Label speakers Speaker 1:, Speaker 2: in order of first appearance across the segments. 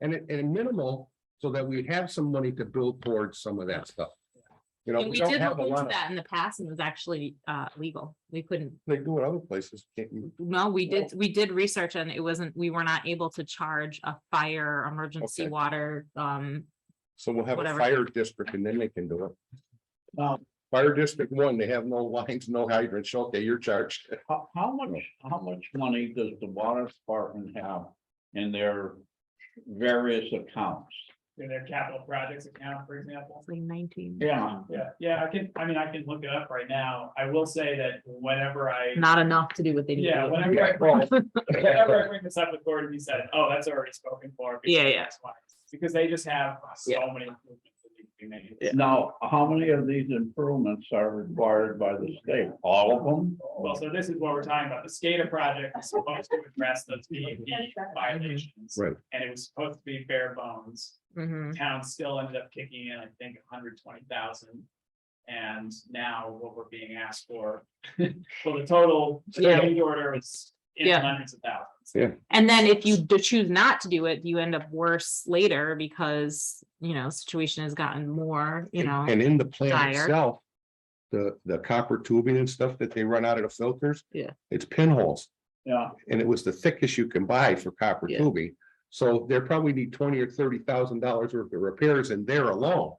Speaker 1: and it, and minimal, so that we have some money to build towards some of that stuff. You know,
Speaker 2: And
Speaker 1: we
Speaker 2: we
Speaker 1: don't
Speaker 2: did
Speaker 1: have
Speaker 2: look
Speaker 1: a
Speaker 2: into
Speaker 1: lot of,
Speaker 2: that in the past and it was actually uh legal. We couldn't,
Speaker 1: they do it other places, can't you?
Speaker 2: no, we did, we did research and it wasn't, we were not able to charge a fire, emergency
Speaker 1: Okay.
Speaker 2: water, um.
Speaker 1: So we'll have a
Speaker 2: Whatever.
Speaker 1: fire district and then they can do it.
Speaker 3: Now,
Speaker 1: Fire district one, they have no lines, no hydrants, okay, you're charged.
Speaker 3: how, how much, how much money does the water department have in their various accounts?
Speaker 4: in their capital projects account, for example.
Speaker 2: Like nineteen.
Speaker 3: Yeah.
Speaker 4: Yeah, yeah, I can, I mean, I can look it up right now. I will say that whenever I,
Speaker 2: Not enough to do what they need.
Speaker 4: yeah,
Speaker 2: to do.
Speaker 4: whenever I, whenever I bring this up with Gordon, he said, oh, that's already spoken for. because
Speaker 2: Yeah,
Speaker 4: of
Speaker 2: yeah.
Speaker 4: X, Y, and Z." Because they just have so many. improvements that need to be made.
Speaker 3: Now, how many of these improvements are required by the state? All of them?
Speaker 4: Well, so this is what we're talking about. The SCADA project is supposed to address those P and P violations.
Speaker 1: Right.
Speaker 4: And it was supposed to be bare bones.
Speaker 2: Mhm.
Speaker 1: Mm-hmm.
Speaker 4: town still ended up kicking in, I think, hundred twenty thousand. And now what we're being asked for, well, the total
Speaker 2: Yeah.
Speaker 4: change order is in the
Speaker 2: Yeah.
Speaker 4: hundreds of thousands.
Speaker 1: Yeah.
Speaker 2: And then if you do choose not to do it, you end up worse later because, you know, situation has gotten more, you know,
Speaker 1: And in the plant
Speaker 2: dire.
Speaker 1: itself, the, the copper tubing and stuff that they run out of the filters.
Speaker 2: Yeah.
Speaker 1: It's pinholes,
Speaker 3: Yeah,
Speaker 1: and it was the thickest you can buy for copper
Speaker 2: Yeah.
Speaker 1: tubing. So they probably need twenty or thirty thousand dollars worth of repairs in there alone.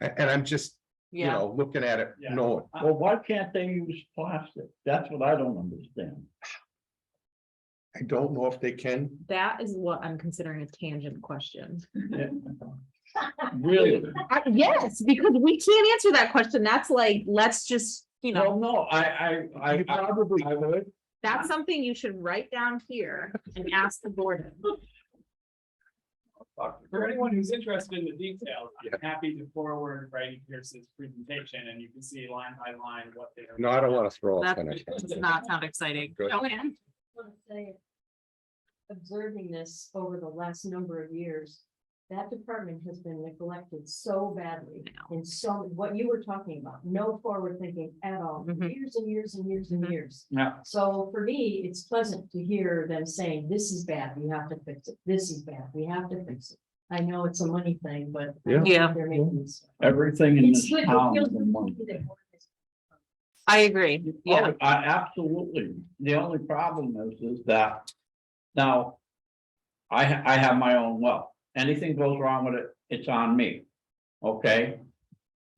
Speaker 1: A- And, I'm just, you
Speaker 2: yeah.
Speaker 1: know, looking at it,
Speaker 4: Yeah.
Speaker 1: knowing.
Speaker 3: well, why can't they use plastic? That's what I don't understand.
Speaker 1: I don't know if they can.
Speaker 2: That is what I'm considering a tangent question.
Speaker 3: Really?
Speaker 2: I- Yes, because we can't answer that question. That's like, let's just, you know.
Speaker 3: No, no, I, I, I,
Speaker 1: You probably
Speaker 3: I would.
Speaker 2: That's something you should write down here and ask the board.
Speaker 4: For anyone who's interested in the details, I'm happy to forward Brady Pierce's presentation and you can see line by line what they're.
Speaker 1: No, I don't want to throw.
Speaker 2: That
Speaker 1: up on it.
Speaker 2: does not sound exciting.
Speaker 1: Good.
Speaker 2: Joanne?
Speaker 5: wanna say, Observing this over the last number of years, that department has been neglected so badly.
Speaker 2: No.
Speaker 5: And so what you were talking about, no forward thinking at all, for
Speaker 2: Mhm.
Speaker 5: years and years and years and
Speaker 2: Mhm.
Speaker 5: years.
Speaker 3: Yeah.
Speaker 5: So for me, it's pleasant to hear them saying, this is bad, we have to fix it, this is bad, we have to fix it. I know it's a money thing, but. I
Speaker 1: Yeah.
Speaker 2: Yeah.
Speaker 5: think They're making this.
Speaker 3: Everything in
Speaker 5: It's
Speaker 3: this
Speaker 5: good.
Speaker 3: town.
Speaker 5: It
Speaker 3: is
Speaker 5: feels
Speaker 3: a money.
Speaker 5: good that
Speaker 2: I agree. Yeah,
Speaker 3: Oh, I absolutely. The only problem is, is that now. I, ha- I have my own well. Anything goes wrong with it, it's on me. Okay?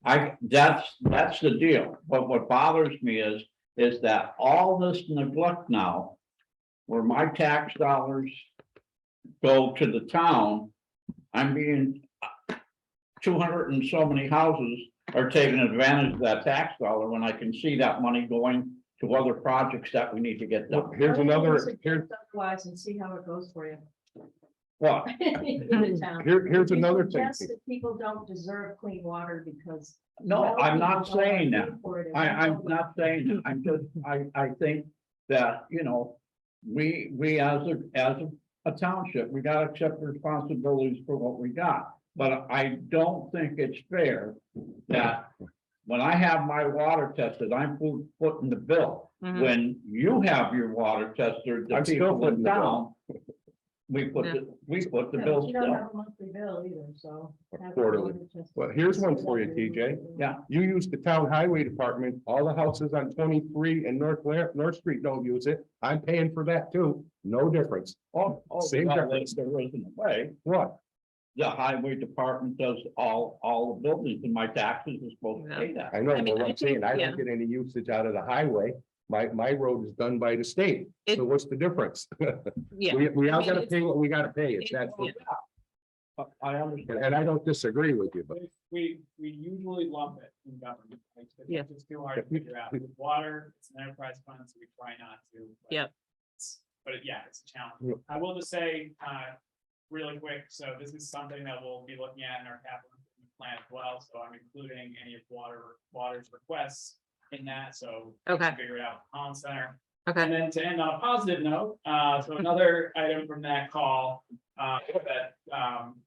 Speaker 3: I, that's, that's the deal. But what bothers me is, is that all this neglect now. Where my tax dollars go to the town, I'm being. Two hundred and so many houses are taking advantage of that tax dollar when I can see that money going to other projects that we need to get
Speaker 1: Look,
Speaker 3: done.
Speaker 1: Here's another, here,
Speaker 5: Otherwise, and see how it goes for you.
Speaker 3: What?
Speaker 5: in the town.
Speaker 1: here, here's
Speaker 5: You
Speaker 1: another thing.
Speaker 5: suggest that People don't deserve clean water because.
Speaker 3: No, I'm not saying that. I, I'm
Speaker 5: not.
Speaker 3: not saying, that. I'm just, I, I think that, you know, we, we as a, as a township, we gotta accept responsibilities for what we got. But I don't think it's fair that when I have my water tested, I'm fu- footing the bill.
Speaker 2: Mhm.
Speaker 5: Mm.
Speaker 3: When you have your water tested, the
Speaker 1: I'm still
Speaker 3: people
Speaker 1: footing
Speaker 3: in
Speaker 1: the bill.
Speaker 3: town, we put, the- we put the
Speaker 5: Yeah,
Speaker 3: bill
Speaker 5: but You don't
Speaker 3: still.
Speaker 5: have a monthly bill either, so.
Speaker 1: Or
Speaker 5: have it
Speaker 1: quarterly.
Speaker 5: delivered just-
Speaker 1: Well, here's one for you, TJ.
Speaker 3: Yeah,
Speaker 1: You use the town highway department, all the houses on twenty-three and North, La- North Street don't use it. I'm paying for that too. No difference.
Speaker 3: oh, oh,
Speaker 1: Same
Speaker 3: well,
Speaker 1: difference.
Speaker 3: there isn't a way.
Speaker 1: What?
Speaker 3: the highway department does all, all the buildings and my taxes are supposed to pay that.
Speaker 1: I know,
Speaker 2: I mean,
Speaker 1: but what
Speaker 2: I
Speaker 1: I'm saying, I don't
Speaker 2: think-
Speaker 1: get any usage out of the highway. My, my road is done by the state.
Speaker 2: It-
Speaker 1: So what's the difference?
Speaker 2: yeah.
Speaker 1: We, we all
Speaker 2: mean,
Speaker 1: gotta
Speaker 2: it's-
Speaker 1: pay what we gotta pay. It's that,
Speaker 2: Yeah.
Speaker 3: I- I understand.
Speaker 1: and I don't disagree with you, but
Speaker 4: We, we usually lump it in government. right? 'Cause
Speaker 2: Yeah.
Speaker 4: It's just too hard to figure out. With water, it's an enterprise fund, so we try not to. but
Speaker 2: Yep.
Speaker 4: it's- But yeah, it's a
Speaker 1: Yep.
Speaker 4: challenge. I will just say, uh, really quick, so this is something that we'll be looking at in our capital improvement plan as well, so I'm including any of water, water's requests in that, so. we can
Speaker 2: Okay.
Speaker 4: Figure it out, Holland Center. And
Speaker 2: Okay.
Speaker 4: then to end on a positive note, uh, so another item from that call, uh, that, um,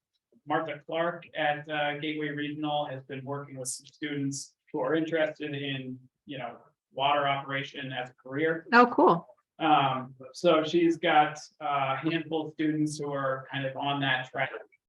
Speaker 4: Martha Clark at, uh, Gateway Regional has been working with some students who are interested in, you know, water operation as a career.
Speaker 2: Oh, cool.
Speaker 4: Um, so she's got uh, a handful of students who are kind of on that track